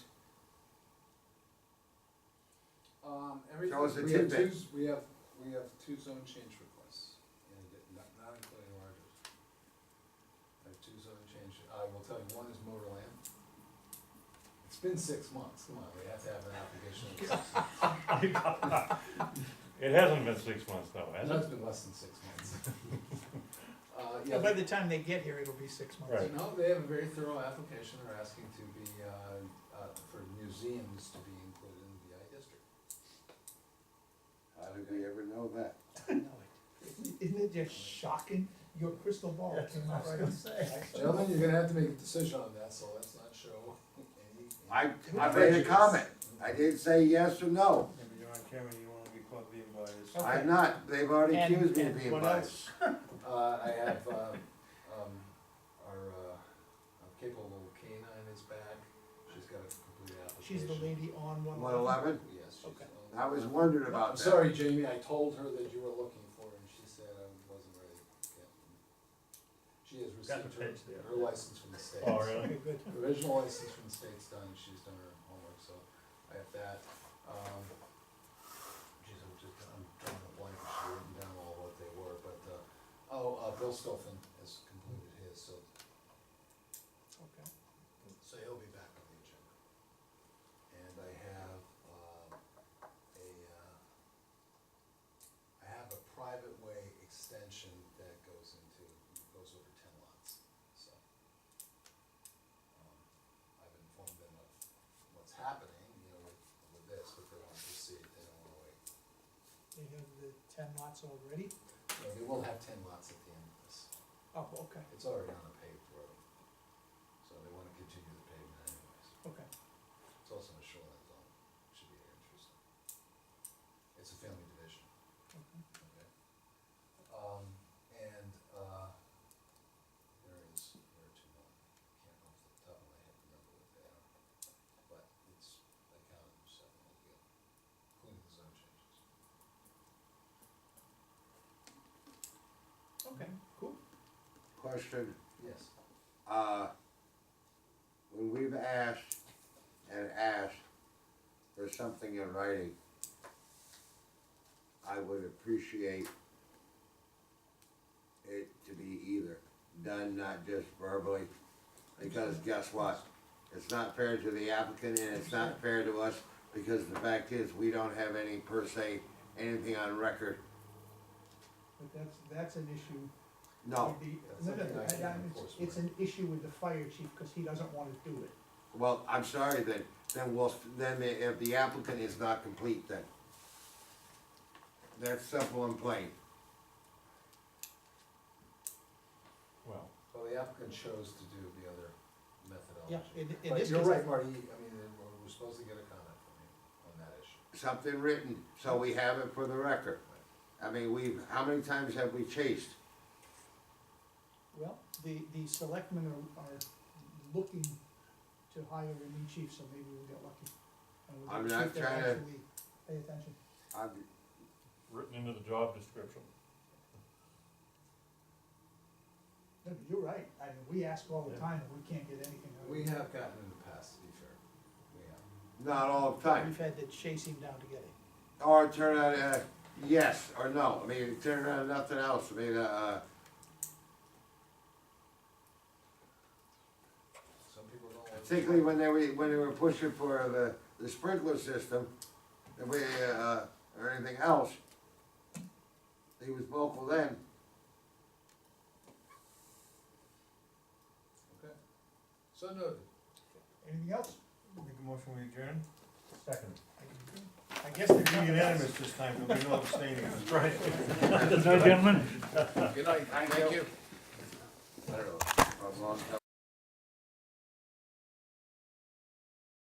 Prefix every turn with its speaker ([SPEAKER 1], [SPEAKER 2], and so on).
[SPEAKER 1] Um, everything.
[SPEAKER 2] Tell us a
[SPEAKER 1] we have
[SPEAKER 2] tidbit.
[SPEAKER 1] two- We have, we have two zone change requests, and it- not, not including ours. I have two zone change, I will tell you, one is motor land. It's been six months, come on, we have to have an application. in six months.
[SPEAKER 3] It hasn't been six months though, has
[SPEAKER 1] No,
[SPEAKER 3] it?
[SPEAKER 1] it's been less than six months. Uh, yeah,
[SPEAKER 4] Yeah, By the time they get here, it'll be six months.
[SPEAKER 3] Right.
[SPEAKER 1] No, they have a very thorough application, they're asking to be, uh, uh, for museums to be included in the VI district.
[SPEAKER 2] How did we ever know that?
[SPEAKER 4] I know it. Isn't it just shocking? Your crystal ball came out right on.
[SPEAKER 1] Gentlemen, you're gonna have to make a decision on that, so let's not show any.
[SPEAKER 2] I, I made a comment, I didn't say yes or no,
[SPEAKER 5] Yeah, but you're on camera, you won't be caught being biased.
[SPEAKER 2] I'm not, they've already
[SPEAKER 4] And-
[SPEAKER 2] accused me of
[SPEAKER 4] and
[SPEAKER 2] being
[SPEAKER 4] what
[SPEAKER 2] biased.
[SPEAKER 1] Uh, I have, uh, um, our, uh, our capable canine is back, she's got a complete application.
[SPEAKER 4] She's the lady on one.
[SPEAKER 2] One eleven,
[SPEAKER 1] Yes, she's.
[SPEAKER 4] Okay.
[SPEAKER 1] on-
[SPEAKER 2] I was wondering
[SPEAKER 1] I'm
[SPEAKER 2] about that.
[SPEAKER 1] sorry, Jamie, I told her that you were looking for her, and she said I wasn't ready yet. She has
[SPEAKER 3] Got the
[SPEAKER 1] received
[SPEAKER 3] page there.
[SPEAKER 1] her, her license from the state.
[SPEAKER 3] Oh, really?
[SPEAKER 4] Okay, good.
[SPEAKER 1] The Original license from the state's done, she's done her homework, so I have that. Um, geez, I'm just, I'm drawing a blank, she's written down all what they were, but, uh, oh, uh, Bill Stoffen has completed his, so,
[SPEAKER 4] Okay.
[SPEAKER 1] so he'll be back on the agenda. And I have, um, a, uh, I have a private way extension that goes into, goes over ten lots, so. um, I've informed them of what's happening, you know, with, with this, but they want to proceed, they don't wanna wait.
[SPEAKER 4] They have the ten lots already?
[SPEAKER 1] So They will have ten lots at the end of this,
[SPEAKER 4] Oh, okay,
[SPEAKER 1] it's already on a paved road, so they wanna continue the pavement anyways.
[SPEAKER 4] okay.
[SPEAKER 1] It's also in a shoreline zone, should be interesting. It's a family division,
[SPEAKER 4] okay.
[SPEAKER 1] okay? Um, and, uh, there is, there are two more, can't off the top of my head remember what they are, but it's, I counted them seven altogether, including the zone changes.
[SPEAKER 4] Okay, cool.
[SPEAKER 2] Question,
[SPEAKER 1] Yes.
[SPEAKER 2] uh, when we've asked and asked for something in writing, I would appreciate it to be either done, not just verbally, because guess what? It's not fair to the applicant and it's not fair to us, because the fact is, we don't have any per se, anything on record,
[SPEAKER 4] But that's, that's an issue.
[SPEAKER 2] no.
[SPEAKER 4] with the-
[SPEAKER 1] That's
[SPEAKER 4] no, no,
[SPEAKER 1] something I
[SPEAKER 4] I-
[SPEAKER 1] can
[SPEAKER 4] I-
[SPEAKER 1] enforce.
[SPEAKER 4] It's an issue with the fire chief, cause he doesn't wanna do it.
[SPEAKER 2] Well, I'm sorry then, then we'll, then if the applicant is not complete then. That's simple and plain.
[SPEAKER 3] Well,
[SPEAKER 1] Well, the applicant chose to do the other
[SPEAKER 4] Yeah,
[SPEAKER 1] methodology.
[SPEAKER 4] in, in
[SPEAKER 1] But
[SPEAKER 4] this
[SPEAKER 1] you're
[SPEAKER 4] case,
[SPEAKER 1] right, Marty, I mean, we're, we're supposed to get a comment from you on that issue.
[SPEAKER 2] Something written, so we have it for the record. I mean, we've, how many times have we chased?
[SPEAKER 4] Well, the, the selectmen are, are looking to hire a new chief, so maybe we'll get lucky. And we'll get
[SPEAKER 2] I'm
[SPEAKER 4] a
[SPEAKER 2] not
[SPEAKER 4] chief that
[SPEAKER 2] trying to-
[SPEAKER 4] actually Pay attention.
[SPEAKER 2] I've,
[SPEAKER 3] written into the job description.
[SPEAKER 4] No, but You're right, I mean, we ask all the
[SPEAKER 3] Yeah.
[SPEAKER 4] time, and we can't get anything out of it.
[SPEAKER 1] We have gotten in the past, to be fair, we have.
[SPEAKER 2] not all the time.
[SPEAKER 4] We've had to chase him down to get it.
[SPEAKER 2] Or turn out a yes or no, I mean, turn out nothing else, I mean, uh,
[SPEAKER 1] Some people don't like.
[SPEAKER 2] particularly when they were, when they were pushing for the, the sprinkler system, the way, uh, or anything else. He was vocal then,
[SPEAKER 1] Okay. So noted.
[SPEAKER 4] Anything else?
[SPEAKER 5] Make a motion, we adjourn?
[SPEAKER 3] Second.
[SPEAKER 4] I guess they're
[SPEAKER 5] Be
[SPEAKER 4] coming.
[SPEAKER 5] unanimous this time, there'll be no abstaining.
[SPEAKER 3] Right. Good night, gentlemen.
[SPEAKER 1] Good night, thank you.
[SPEAKER 2] I don't know, if I'm on top